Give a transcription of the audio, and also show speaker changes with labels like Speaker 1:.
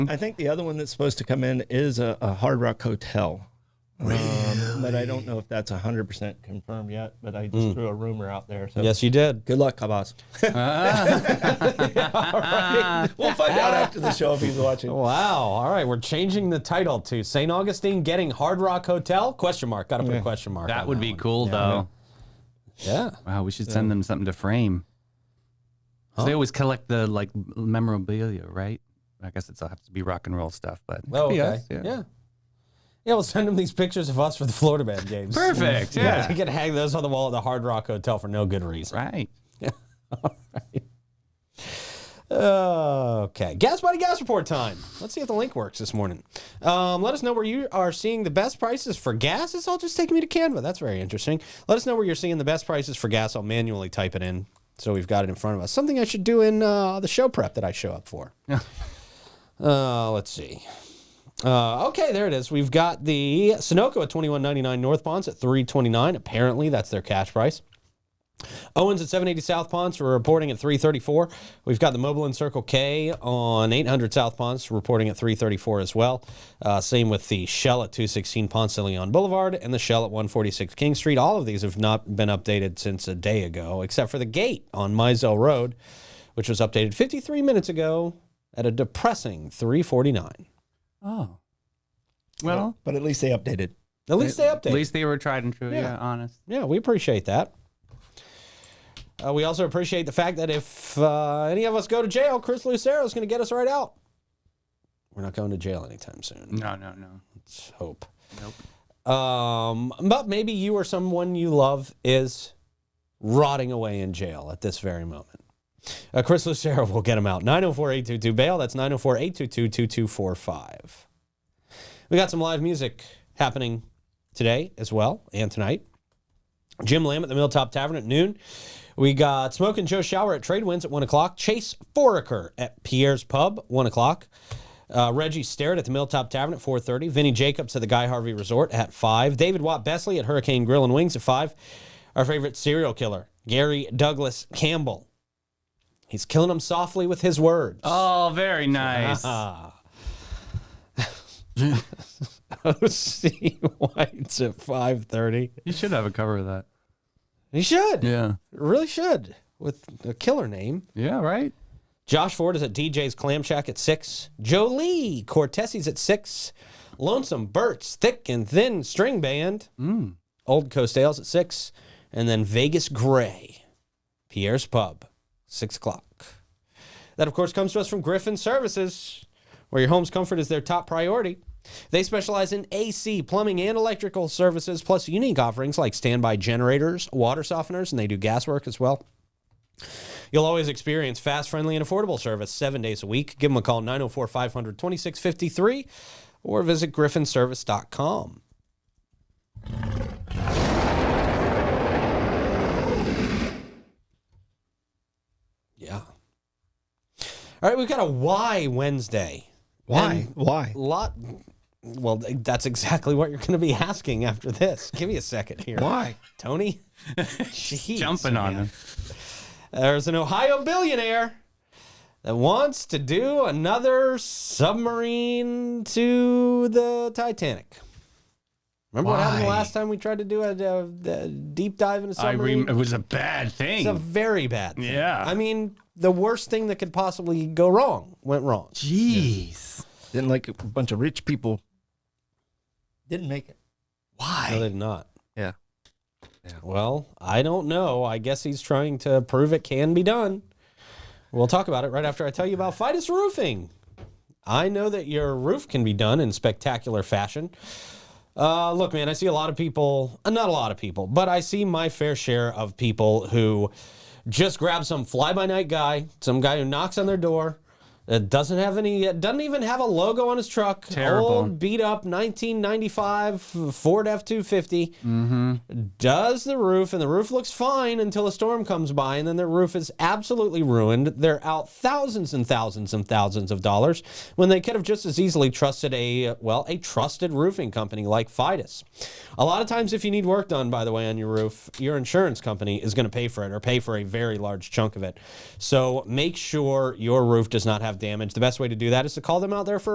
Speaker 1: I think the other one that's supposed to come in is a, a Hard Rock Hotel. Um, but I don't know if that's 100% confirmed yet, but I just threw a rumor out there. So
Speaker 2: Yes, you did.
Speaker 1: Good luck, Kabas. We'll find out after the show if he's watching.
Speaker 2: Wow. All right, we're changing the title to St. Augustine getting Hard Rock Hotel? Question mark. Got to put a question mark.
Speaker 3: That
Speaker 2: on
Speaker 3: would be
Speaker 2: one.
Speaker 3: cool, though.
Speaker 2: Yeah.
Speaker 3: Wow, we should send them something to frame. 'Cause They always collect the like memorabilia, right? I guess it's have to be rock and roll stuff, but
Speaker 2: Oh, okay.
Speaker 3: Could be us,
Speaker 2: yeah. yeah. we'll send them these pictures of us for the Florida band games.
Speaker 3: Perfect, yeah.
Speaker 2: You can hang those on the wall at the Hard Rock Hotel for no good reason.
Speaker 3: right.
Speaker 2: Okay. Gas Body Gas Report time. Let's see if the link works this morning. Um, let us know where you are seeing the best prices for gas. It's all just taking me to Canva. That's very interesting. Let us know where you're seeing the best prices for gas. I'll manually type it in so we've got it in front of us. Something I should do in uh, the show prep that I show up for. uh, let's see. Uh, okay, there it is. We've got the Sunoco at twenty one ninety nine North Ponds at three twenty nine. Apparently, that's their cash price. Owens at 780 South Ponce we're reporting at 334. We've got the Mobile and Circle K on 800 South Ponce reporting at 334 as well. Uh, same with the Shell at 216 Ponce de Leon Boulevard and the Shell at 146 King Street. All of these have not been updated since a day ago, except for the gate on Mizell Road, which was updated 53 minutes ago at a depressing 349.
Speaker 3: Oh. Well,
Speaker 1: But at least they updated.
Speaker 2: At least they updated.
Speaker 3: at least they were tried and true. Yeah, honest.
Speaker 2: yeah, we appreciate that. Uh, we also appreciate the fact that if uh, any of us go to jail, Chris Lucero is going to get us right out. We're not going to jail anytime soon.
Speaker 3: No, no, no.
Speaker 2: Let's hope.
Speaker 3: Mm. Nope.
Speaker 2: Um, but maybe you or someone you love is rotting away in jail at this very moment. Uh, Chris Lucero will get him out. 904 822 bail. That's 904 822 2245. We got some live music happening today as well and tonight. Jim Lamb at the Milltop Tavern at noon. We got Smoke and Joe Shower at Trade Winds at 1 o'clock. Chase Foraker at Pierre's Pub, 1 o'clock. Uh, Reggie Starrett at the Milltop Tavern at 4.30. Vinny Jacobs at the Guy Harvey Resort at 5. David Watt Besley at Hurricane Grill and Wings at 5. Our favorite serial killer, Gary Douglas Campbell. He's killing them softly with his words.
Speaker 3: Oh, very nice.
Speaker 2: Ah. O.C. Oh, White's at 5.30.
Speaker 3: You should have a cover of that.
Speaker 2: He should.
Speaker 3: Yeah.
Speaker 2: Really should. With a killer name.
Speaker 3: Yeah, right?
Speaker 2: Josh Ford is at DJ's Clam Shack at six. Jolie Cortesi's at six. Lonesome Burt's Thick and Thin String Band. Old Coast Ales at six. And then Vegas Gray, Pierre's Pub, six o'clock. That, of course, comes to us from Griffin Services, where your home's comfort is their top priority. They specialize in AC, plumbing, and electrical services, plus unique offerings like standby generators, water softeners, and they do gas work as well. You'll always experience fast, friendly, and affordable service seven days a week. Give them a call 904 500 2653 or visit griffinservice.com. Yeah. All right, we've got a why Wednesday.
Speaker 1: Why? Why?
Speaker 2: Lot. Well, that's exactly what you're going to be asking after this. Give me a second here.
Speaker 1: Why?
Speaker 2: Tony? Jeez,
Speaker 3: Jumping on him.
Speaker 2: there's an Ohio billionaire that wants to do another submarine to the Titanic. Remember what happened the
Speaker 3: Why?
Speaker 2: last time we tried to do a, a- a deep dive in a
Speaker 3: I
Speaker 2: submarine?
Speaker 3: rem- it was a bad
Speaker 2: it's a
Speaker 3: thing.
Speaker 2: very bad thing.
Speaker 3: Yeah.
Speaker 2: I mean, the worst thing that could possibly go wrong went wrong.
Speaker 3: Jeez.
Speaker 1: Then like a bunch of rich people didn't make it.
Speaker 2: No,
Speaker 3: Why?
Speaker 2: they did not.
Speaker 1: Yeah.
Speaker 2: Well, I don't know. I guess he's trying to prove it can be done. We'll talk about it right after I tell you about Fidus Roofing. I know that your roof can be done in spectacular fashion. Uh, look, man, I see a lot of people, uh, not a lot of people, but I see my fair share of people who just grab some fly by night guy, some guy who knocks on their door, that doesn't have any, uh, doesn't even have a logo on his truck.
Speaker 3: Terrible.
Speaker 2: Old, beat up 1995 Ford F 250 does the roof, and the roof looks fine until a storm comes by, and then their roof is absolutely ruined. They're out thousands and thousands and thousands of dollars when they could have just as easily trusted a, well, a trusted roofing company like Fidus. A lot of times, if you need work done, by the way, on your roof, your insurance company is going to pay for it or pay for a very large chunk of it. So make sure your roof does not have damage. The best way to do that is to call them out there for